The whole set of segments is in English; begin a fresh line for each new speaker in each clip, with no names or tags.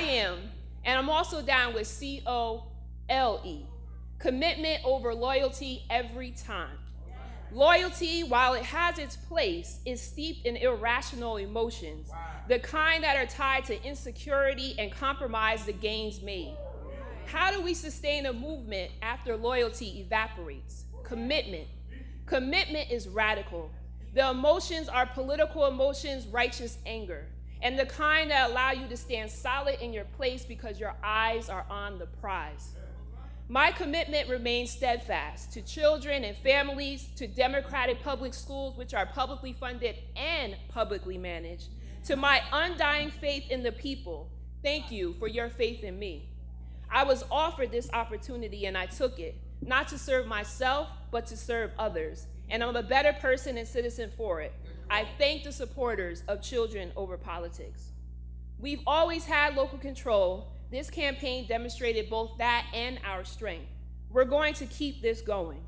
am. And I'm also down with C O L E. Commitment over loyalty every time. Loyalty, while it has its place, is steeped in irrational emotions, the kind that are tied to insecurity and compromise the gains made. How do we sustain a movement after loyalty evaporates? Commitment. Commitment is radical. The emotions are political emotions, righteous anger, and the kind that allow you to stand solid in your place because your eyes are on the prize. My commitment remains steadfast to children and families, to democratic public schools, which are publicly funded and publicly managed, to my undying faith in the people. Thank you for your faith in me. I was offered this opportunity and I took it, not to serve myself, but to serve others. And I'm a better person and citizen for it. I thank the supporters of Children Over Politics. We've always had local control. This campaign demonstrated both that and our strength. We're going to keep this going.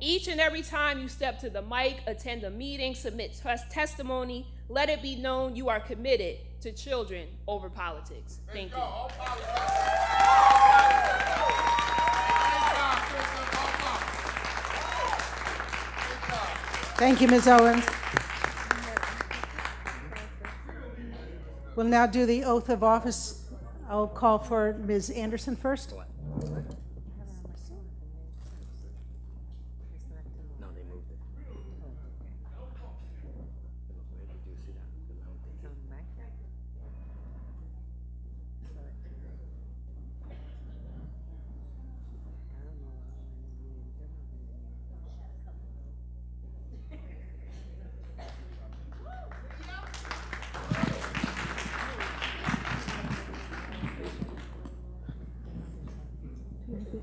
Each and every time you step to the mic, attend a meeting, submit tes- testimony, let it be known you are committed to children over politics. Thank you.
Thank you, Ms. Owens. We'll now do the oath of office. I'll call for Ms. Anderson first.
No, they moved it. Where did you see that? The mountain.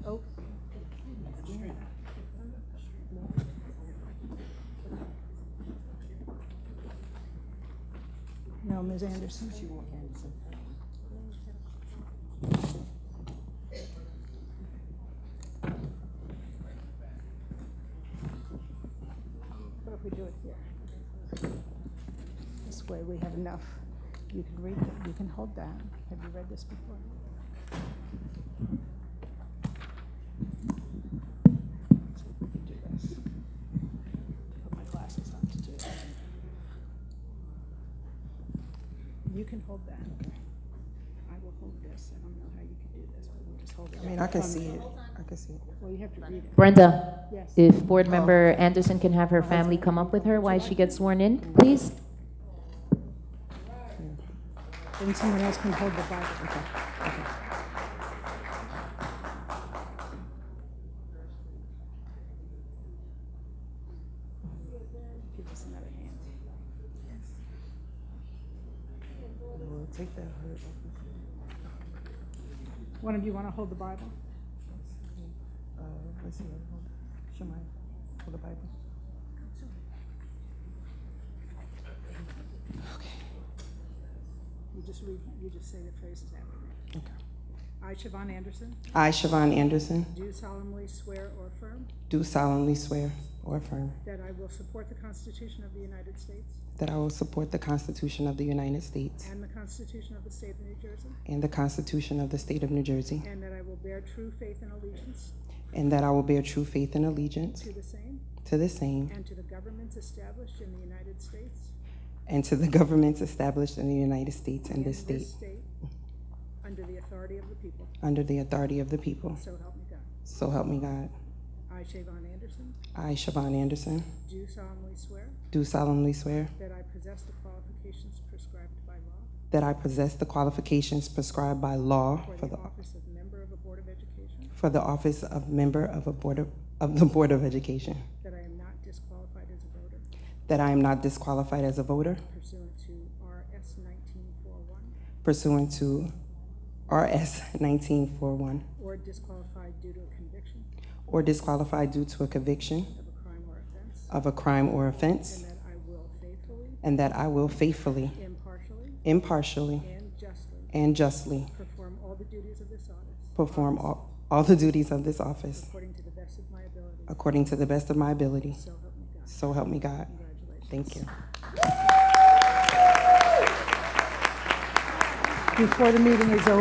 Oh. No, Ms. Anderson. What if we do it here? This way we have enough. You can read, it. you can hold that. Have you read this before? So we can do this. Put my glasses on to do it. You can hold that. I will hold this. I don't know how you can do this, but we'll just hold it.
I mean, I can see it. I can see it.
Well, you have to read it.
Brenda,
Yes.
if Board Member Anderson can have her family come up with her while she gets sworn in, please?
And someone else can hold the Bible. Give us another hand.
Lord, take that hurt off me.
One of you want to hold the Bible?
Uh, let's see, hold, show my, hold the Bible.
You just read, you just say the phrases after me.
Okay.
I, Siobhan Anderson,
I, Siobhan Anderson,
do solemnly swear or affirm
do solemnly swear or affirm
that I will support the Constitution of the United States
that I will support the Constitution of the United States
and the Constitution of the State of New Jersey,
and the Constitution of the State of New Jersey,
and that I will bear true faith and allegiance
and that I will bear true faith and allegiance
to the same
to the same
and to the governments established in the United States
and to the governments established in the United States and
and
this state
this state, under the authority of the people,
under the authority of the people.
so help me God.
So help me God.
I, Siobhan Anderson,
I, Siobhan Anderson,
do solemnly swear
do solemnly swear
that I possess the qualifications prescribed by law
That I possess the qualifications prescribed by law for
for
the,
the office of member of a Board of Education,
for the office of member of a board of, of the Board of Education.
that I am not disqualified as a voter
That I am not disqualified as a voter
pursuant to RS 1941
pursuant to RS nineteen four one,
or disqualified due to a conviction
or disqualified due to a conviction
of a crime or offense,
of a crime or
and
offense,
that I will faithfully,
and that I will faithfully,
impartially,
impartially,
and justly
and justly
perform all the duties of this office
perform all, all the duties of this office
according to the best of my ability,
according to the best of my ability.
so help me God.
So help me God.
Congratulations.
Thank you.
Before the meeting is over.